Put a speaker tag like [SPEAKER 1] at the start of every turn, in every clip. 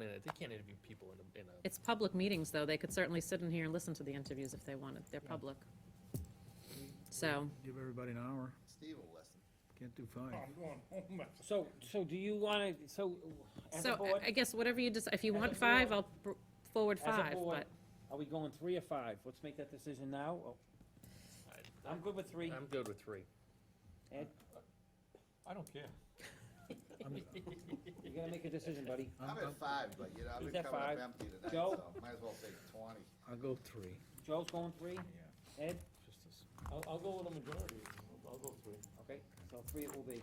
[SPEAKER 1] they can't interview people in a, in a,
[SPEAKER 2] It's public meetings, though. They could certainly sit in here and listen to the interviews if they wanted. They're public. So,
[SPEAKER 3] Give everybody an hour,
[SPEAKER 4] Steve will listen.
[SPEAKER 3] can't do five.
[SPEAKER 5] I'm going home.
[SPEAKER 6] So, so do you wanna, so, as a
[SPEAKER 2] so
[SPEAKER 6] board,
[SPEAKER 2] I- I guess whatever you just, if you
[SPEAKER 6] As a
[SPEAKER 2] want five,
[SPEAKER 6] board-
[SPEAKER 2] I'll pr- forward
[SPEAKER 6] As a
[SPEAKER 2] five,
[SPEAKER 6] board.
[SPEAKER 2] but
[SPEAKER 6] are we going three or five? Let's make that decision now. Oh, I'm good with three.
[SPEAKER 1] I'm good with three.
[SPEAKER 6] Ed,
[SPEAKER 5] I don't care.
[SPEAKER 6] you gotta make a decision, buddy.
[SPEAKER 4] I'm at five, but you know, I've
[SPEAKER 6] He's
[SPEAKER 4] been
[SPEAKER 6] at
[SPEAKER 4] coming
[SPEAKER 6] five.
[SPEAKER 4] up empty tonight,
[SPEAKER 6] Joe?
[SPEAKER 4] so might as well take twenty.
[SPEAKER 3] I'll go three.
[SPEAKER 6] Joe's going three? Ed?
[SPEAKER 5] I'll, I'll go with a majority. I'll- I'll go three.
[SPEAKER 6] Okay, so three it will be.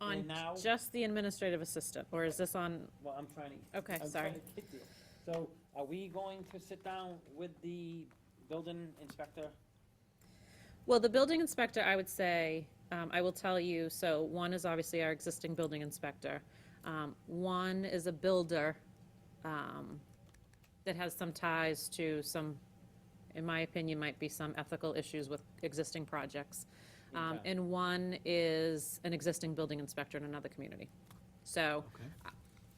[SPEAKER 6] And
[SPEAKER 2] on
[SPEAKER 6] now-
[SPEAKER 2] just the administrative assistant, or is this on,
[SPEAKER 6] Well, I'm trying to.
[SPEAKER 2] okay,
[SPEAKER 6] I'm
[SPEAKER 2] sorry.
[SPEAKER 6] trying to get you. So are we going to sit down with the building inspector?
[SPEAKER 2] Well, the building inspector, I would say, um, I will tell you, so one is obviously our existing building inspector. Um, One is a builder um, that has some ties to some, in my opinion, might be some ethical issues with existing projects. Um,
[SPEAKER 6] Okay.
[SPEAKER 2] And one is an existing building inspector in another community. So, uh,
[SPEAKER 3] Okay.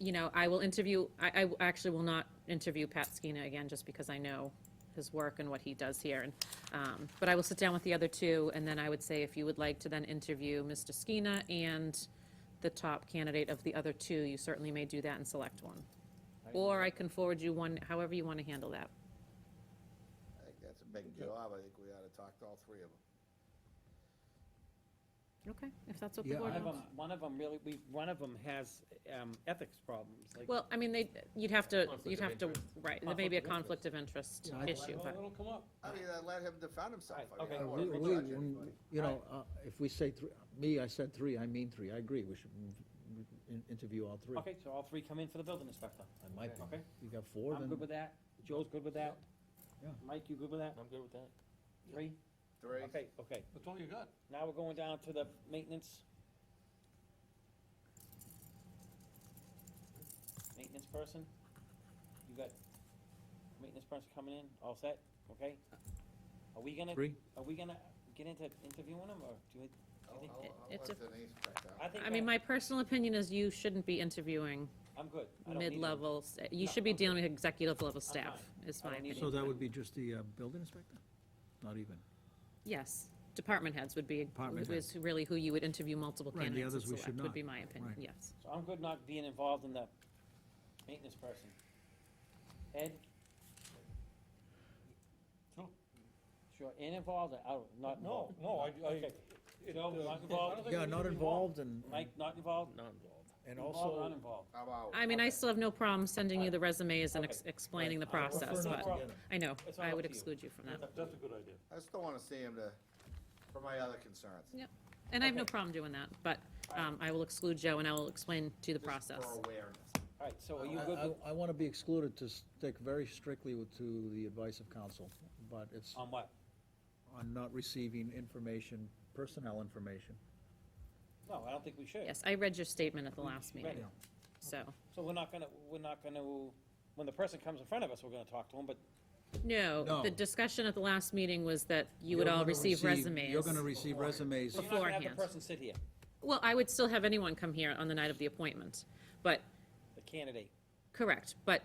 [SPEAKER 2] you know, I will interview, I, I actually will not interview Pat Skeena again, just because I know his work and what he does here. And, um, but I will sit down with the other two, and then I would say if you would like to then interview Mr. Skeena and the top candidate of the other two, you certainly may do that and select one. Or I can forward you one, however you want to handle that.
[SPEAKER 4] I think that's a big job. I think we ought to talk to all three of them.
[SPEAKER 2] Okay, if that's what the
[SPEAKER 3] Yeah,
[SPEAKER 2] board
[SPEAKER 6] One of
[SPEAKER 2] wants.
[SPEAKER 6] them, one of 'em really, we, one of them has, um, ethics problems, like.
[SPEAKER 2] Well, I mean, they, you'd have to,
[SPEAKER 1] Conflict
[SPEAKER 2] you'd
[SPEAKER 1] of
[SPEAKER 2] have to,
[SPEAKER 1] interest.
[SPEAKER 2] right, there may be a
[SPEAKER 1] Conflict
[SPEAKER 2] conflict of interest
[SPEAKER 3] Yeah, I-
[SPEAKER 2] issue, but.
[SPEAKER 5] It'll come up.
[SPEAKER 4] I mean, I let him defend himself. I mean,
[SPEAKER 6] Okay.
[SPEAKER 4] I don't
[SPEAKER 3] Uh,
[SPEAKER 4] wanna
[SPEAKER 3] we-
[SPEAKER 6] Well,
[SPEAKER 3] we-
[SPEAKER 4] judge
[SPEAKER 3] when-
[SPEAKER 4] anybody.
[SPEAKER 3] You know, uh, if we say three, me, I said three, I mean three, I agree, we should mm, in- interview all three.
[SPEAKER 6] Okay, so all three come in for the building inspector.
[SPEAKER 3] In my opinion.
[SPEAKER 6] Okay.
[SPEAKER 3] You got four,
[SPEAKER 6] I'm good
[SPEAKER 3] then,
[SPEAKER 6] with that. Joe's good with that.
[SPEAKER 3] Yeah.
[SPEAKER 6] Mike, you good with that?
[SPEAKER 1] I'm good with that.
[SPEAKER 6] Three?
[SPEAKER 4] Three.
[SPEAKER 6] Okay, okay.
[SPEAKER 5] That's all you got.
[SPEAKER 6] Now we're going down to the maintenance. Maintenance person? You got maintenance person coming in, all set, okay? Are we gonna,
[SPEAKER 3] Three.
[SPEAKER 6] are we gonna get into interviewing them, or do we?
[SPEAKER 4] I'll,
[SPEAKER 6] think
[SPEAKER 4] I'll,
[SPEAKER 2] it-
[SPEAKER 4] I'll
[SPEAKER 2] it's
[SPEAKER 4] let
[SPEAKER 2] a-
[SPEAKER 4] Denise pick
[SPEAKER 6] I
[SPEAKER 4] out.
[SPEAKER 6] think,
[SPEAKER 2] I mean,
[SPEAKER 6] I-
[SPEAKER 2] my personal opinion is you shouldn't be interviewing
[SPEAKER 6] I'm good. I don't need 'em.
[SPEAKER 2] mid-level, sta- you
[SPEAKER 6] No,
[SPEAKER 2] should be
[SPEAKER 6] I'm good.
[SPEAKER 2] dealing with executive level
[SPEAKER 6] I'm fine.
[SPEAKER 2] staff, is
[SPEAKER 6] I
[SPEAKER 2] my
[SPEAKER 6] don't need
[SPEAKER 2] opinion.
[SPEAKER 3] so that would be just the uh, building inspector? Not even.
[SPEAKER 2] Yes, department heads would be,
[SPEAKER 3] Department
[SPEAKER 2] is really who you would interview multiple
[SPEAKER 3] Right, the
[SPEAKER 2] candidates and
[SPEAKER 3] others we should
[SPEAKER 2] select, would
[SPEAKER 3] not.
[SPEAKER 2] be my opinion,
[SPEAKER 3] Right.
[SPEAKER 2] yes.
[SPEAKER 6] So I'm good not being involved in the maintenance person. Ed?
[SPEAKER 5] Sure.
[SPEAKER 6] Sure, in involved or out, not
[SPEAKER 5] No,
[SPEAKER 6] involved?
[SPEAKER 5] no, I, I.
[SPEAKER 6] Okay.
[SPEAKER 5] it,
[SPEAKER 6] Joe,
[SPEAKER 5] uh,
[SPEAKER 6] not
[SPEAKER 5] I don't
[SPEAKER 6] involved?
[SPEAKER 5] think we
[SPEAKER 3] Yeah,
[SPEAKER 5] need to
[SPEAKER 3] not
[SPEAKER 5] be
[SPEAKER 3] involved and,
[SPEAKER 6] Mike, not involved?
[SPEAKER 1] Not involved.
[SPEAKER 3] and
[SPEAKER 6] Involved,
[SPEAKER 3] also.
[SPEAKER 6] uninvolved?
[SPEAKER 4] How about,
[SPEAKER 2] I mean, I still have no problem sending you the resumes and ex-
[SPEAKER 6] Okay.
[SPEAKER 2] explaining the
[SPEAKER 6] Right. I prefer
[SPEAKER 2] process,
[SPEAKER 6] not
[SPEAKER 2] but,
[SPEAKER 6] to.
[SPEAKER 2] I know,
[SPEAKER 6] It's all
[SPEAKER 2] I
[SPEAKER 6] up
[SPEAKER 2] would
[SPEAKER 6] to you.
[SPEAKER 2] exclude you from that.
[SPEAKER 5] That- That's a good idea.
[SPEAKER 4] I just don't wanna see him to, for my other concerns.
[SPEAKER 2] And I have no
[SPEAKER 6] Okay.
[SPEAKER 2] problem doing that, but, um, I will exclude Joe and I will explain to you the process.
[SPEAKER 4] Just for awareness.
[SPEAKER 6] All right, so are
[SPEAKER 2] Uh,
[SPEAKER 6] you
[SPEAKER 3] I-
[SPEAKER 6] good
[SPEAKER 3] I-
[SPEAKER 6] with-
[SPEAKER 3] I want to be excluded to stick very strictly with- to the advice of counsel, but
[SPEAKER 2] uh,
[SPEAKER 3] it's
[SPEAKER 6] on what?
[SPEAKER 3] on not receiving information, personnel information.
[SPEAKER 6] No, I don't think we should.
[SPEAKER 2] Yes, I read your statement at the last
[SPEAKER 6] Right.
[SPEAKER 2] meeting, so,
[SPEAKER 6] So we're not gonna, we're not gonna, when the person comes in front of us, we're gonna talk to them, but
[SPEAKER 2] no,
[SPEAKER 3] No.
[SPEAKER 2] the discussion at the last meeting was that you would
[SPEAKER 3] You're
[SPEAKER 2] all
[SPEAKER 3] gonna
[SPEAKER 2] receive resumes.
[SPEAKER 3] You're going to receive resumes.
[SPEAKER 6] so you're not gonna have the
[SPEAKER 2] Beforehand.
[SPEAKER 6] person sit here,
[SPEAKER 2] Well, I would still have anyone come here on the night of the appointment, but,
[SPEAKER 6] the candidate.
[SPEAKER 2] correct, but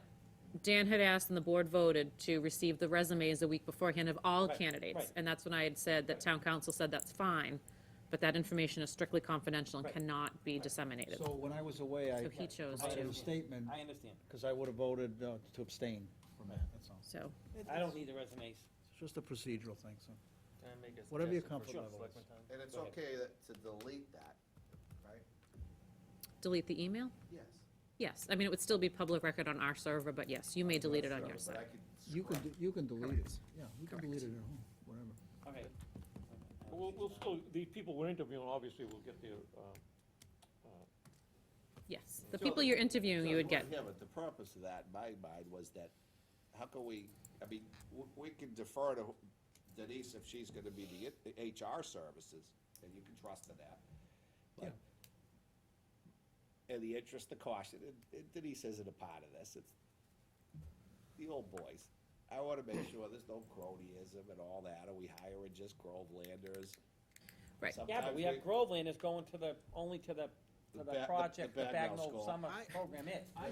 [SPEAKER 2] Dan had asked and the board voted to receive the resumes a week beforehand of all
[SPEAKER 6] Right, right.
[SPEAKER 2] candidates. And that's when I had said that town council said that's fine, but that information is strictly confidential and
[SPEAKER 6] Right.
[SPEAKER 2] cannot be disseminated.
[SPEAKER 3] So when I was away, I
[SPEAKER 2] So he chose
[SPEAKER 3] provided
[SPEAKER 2] to.
[SPEAKER 3] a statement,
[SPEAKER 6] I understand.
[SPEAKER 3] because I would have voted uh, to abstain from that, that's all.
[SPEAKER 2] So,
[SPEAKER 6] I don't need the resumes.
[SPEAKER 3] It's just a procedural thing, so.
[SPEAKER 1] Can I make a
[SPEAKER 3] Whatever
[SPEAKER 1] suggestion
[SPEAKER 3] your
[SPEAKER 1] for
[SPEAKER 3] comfort
[SPEAKER 1] sure,
[SPEAKER 3] level
[SPEAKER 1] Selectman Tom?
[SPEAKER 4] And it's
[SPEAKER 6] Go ahead.
[SPEAKER 4] okay that, to delete that, right?
[SPEAKER 2] delete the email?
[SPEAKER 4] Yes.
[SPEAKER 2] Yes, I mean, it would still be public record on our server, but yes, you may delete it on your
[SPEAKER 4] But I
[SPEAKER 2] side.
[SPEAKER 4] could
[SPEAKER 3] You can,
[SPEAKER 4] scrub.
[SPEAKER 3] d- you can delete it, yeah, you can
[SPEAKER 2] Correct.
[SPEAKER 3] delete it at home, whatever.
[SPEAKER 6] Okay.
[SPEAKER 5] We'll, we'll still, the people we're interviewing, obviously, will get their, uh,
[SPEAKER 2] Yes, the
[SPEAKER 4] So-
[SPEAKER 2] people you're interviewing, you would get,
[SPEAKER 4] Yeah, but the purpose of that, in my mind, was that, how can we, I mean, w- we can defer to Denise if she's gonna be the it- the HR services, and you can trust in that. But In the interest of caution, and- and Denise isn't a part of this, it's the old boys. I wanna make sure there's no cronyism and all that, and we hiring just Grovelanders.
[SPEAKER 2] Right.
[SPEAKER 6] Yeah, but
[SPEAKER 4] Sometimes
[SPEAKER 6] we have Groveland is going to the, only to the,
[SPEAKER 4] The
[SPEAKER 6] to
[SPEAKER 4] ba-
[SPEAKER 6] the
[SPEAKER 4] the-
[SPEAKER 6] project, the
[SPEAKER 4] the Bagnell
[SPEAKER 6] Bagnell
[SPEAKER 4] School.
[SPEAKER 6] Summer
[SPEAKER 3] I-
[SPEAKER 6] Program is.
[SPEAKER 4] I